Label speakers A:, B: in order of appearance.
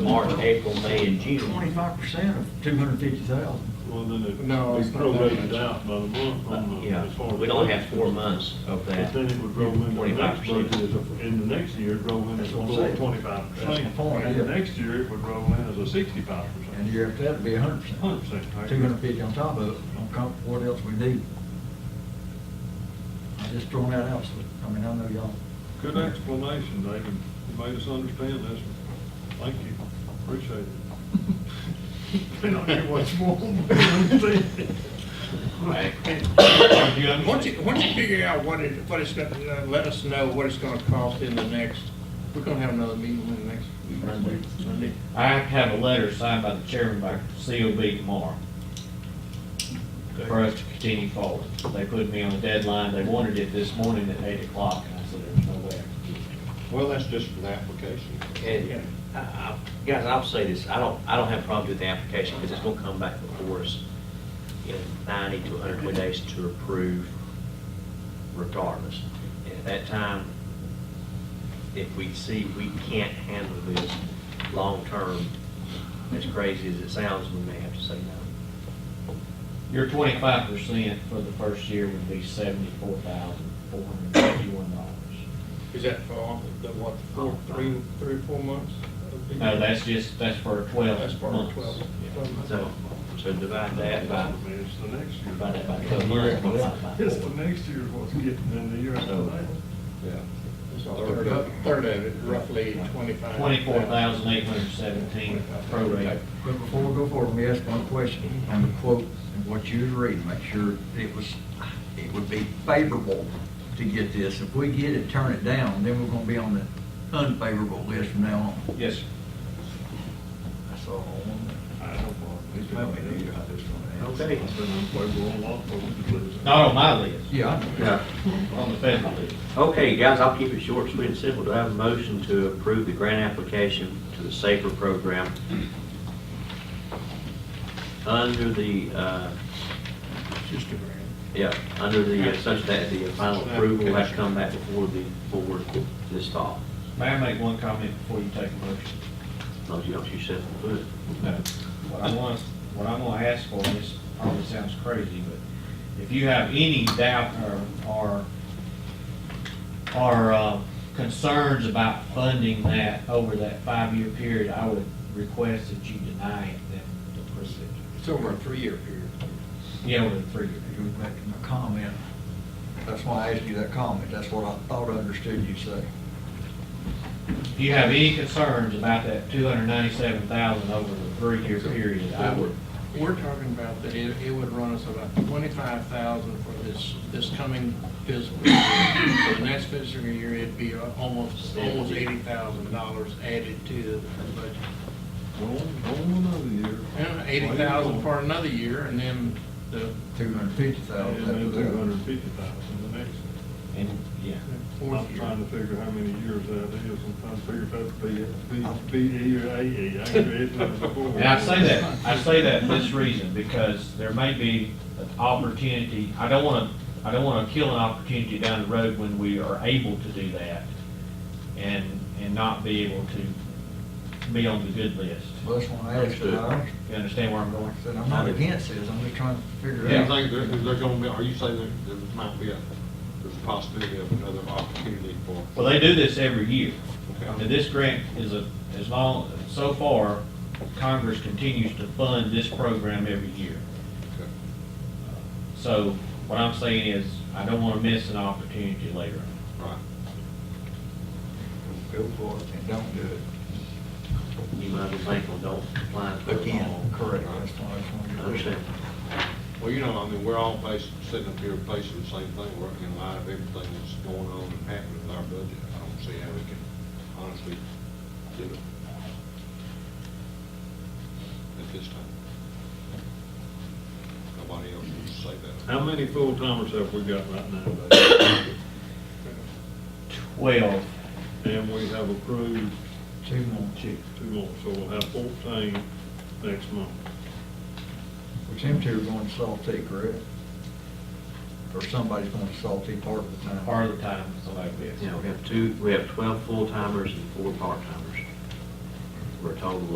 A: March, April, May, and June.
B: Twenty-five percent of two hundred and fifty thousand.
C: Well, then it,
D: No, it's
C: it's
D: not that
C: prorated
D: much.
C: out by the month on the.
A: Yeah,
C: as far as-
A: we'd only have four months of
C: But
A: that.
C: then it would roll in the next
A: 25%.
C: budget, as a- in the next year, it'd roll in as
B: That's what I'm saying.
C: twenty-five
B: That's my
C: percent.
B: point,
C: And the
B: yeah.
C: next year, it would roll in as a
B: And
C: sixty-five
B: the
C: percent.
B: year after that'd be hundred percent.
C: Hundred percent, right?
B: Two hundred and fifty on top of it, on top of what else we need. I just throwing that out, so, I mean, I know y'all.
C: Good explanation, David. You made us understand this. Thank you. Appreciate it. Been on here much more. You understand?
D: Once you, once you figure out what it, what it's gonna, uh, let us know what it's gonna cost in the next, we're gonna have another meeting in the next.
A: Monday.
D: Monday.
A: I have a letter signed by the chairman by COB tomorrow for us to continue forward. They put me on a deadline, they wanted it this morning at eight o'clock, and I said, there's no way. I can do it."
E: Well, that's just for the application.
A: And, I- I- guys, I'll say this, I don't, I don't have problems with the application, because it's gonna come back before us in ninety to hundred and twenty days to approve regardless. And at that time, if we see we can't handle this long-term, as crazy as it sounds, we may have to say no. Your twenty-five percent for the first year would be seventy-four thousand, four hundred and fifty-one dollars.
D: Is that for, all the what, four, three, three or four months?
A: No, that's just, that's for twelve
D: That's for
A: months.
D: 12, 12 months.
A: So, so divide that by,
C: I mean, It's the next year.
A: divide that by twelve months, multiply by
C: It's the
A: four.
C: next year what's getting in the year after that.
E: Yeah.
D: It's a third of, third of it, roughly twenty-five.
A: Twenty-four thousand eight hundred seventeen prorate.
B: But before we go forward, let me ask one question on the quote and what you was reading, make sure it was, it would be favorable to get this. If we get it, turn it down, then we're gonna be on the unfavorable list from now on.
A: Yes, sir.
B: That's all I want.
C: I don't know. It's not
B: Maybe
C: been-
B: you got this one.
A: Okay.
C: It's been unfavorable on a lot of folks' lives.
A: not on my list,
B: Yeah,
F: Yeah.
A: on the federal list.
F: Okay, guys, I'll keep it short, sweet, and simple. Do I have a motion to approve the grant application to the SAFER program under the, uh,
D: Just a grand.
F: yeah, under the, uh, such that the final approval will have to come back before the board this fall?
A: May I make one comment before you take a motion?
F: As long as you don't shoot yourself in the foot.
A: No. What I want, what I'm gonna ask for, and this probably sounds crazy, but if you have any doubt or, or, or, uh, concerns about funding that over that five-year period, I would request that you deny it then to proceed.
D: It's over a three-year period.
A: Yeah, with a three-year
B: You
A: period.
B: was making a comment. That's why I asked you that comment. That's what I thought I understood you say.
A: If you have any concerns about that two hundred ninety-seven thousand over the three-year period, I would,
D: We're talking about that it, it would run us about twenty-five thousand for this, this coming fiscal year. For the next fiscal year, it'd be uh, almost, almost eighty thousand dollars added to the budget.
C: Go on, go on another year.
D: And eighty thousand for another year, and then the
B: Two hundred fifty
C: And then
B: thousand.
C: two hundred and fifty thousand the next. year.
A: and, yeah.
D: fourth
C: I'm
D: year.
C: trying to figure how many years that is, I'm trying to figure if that's B, B, B, E or A, E, I can read that before.
A: And I say that, I say that for this reason, because there may be an opportunity, I don't wanna, I don't wanna kill an opportunity down the road when we are able to do that and, and not be able to be on the good list.
B: Well, that's why I asked you. I
A: You understand where I'm going?
B: said, I'm not against this. I'm just trying to figure
E: Do
B: it
E: you
B: out.
E: think there, is there gonna be, are you saying there, there might be a, there's a possibility of another opportunity for?
A: Well, they do this every year.
E: Okay.
A: And this grant is a, as long, so far, Congress continues to fund this program every year.
E: Okay.
A: So what I'm saying is, I don't wanna miss an opportunity later on.
E: Right.
B: Go for it and don't do it.
F: You might be thankful, don't apply for it
B: Again,
F: all.
B: correct. That's why I just wanted
F: I
B: to.
F: Understand?
E: Well, you know, I mean, we're all facing, sitting up here facing the same thing, working in light of everything that's going on and happening with our budget. I don't see how we can honestly do it at this time. Nobody else can say that.
C: How many full-timers have we got right now? Dave?
A: Well,
C: And we have approved
B: Two more, two.
C: two more, so we'll have fourteen next month.
B: Which them two are going to Salty, correct? Or somebody's going to Salty part of the time.
A: part of the time, so like this.
F: Yeah, we have two, we have twelve full-timers and four part-timers. We're a total of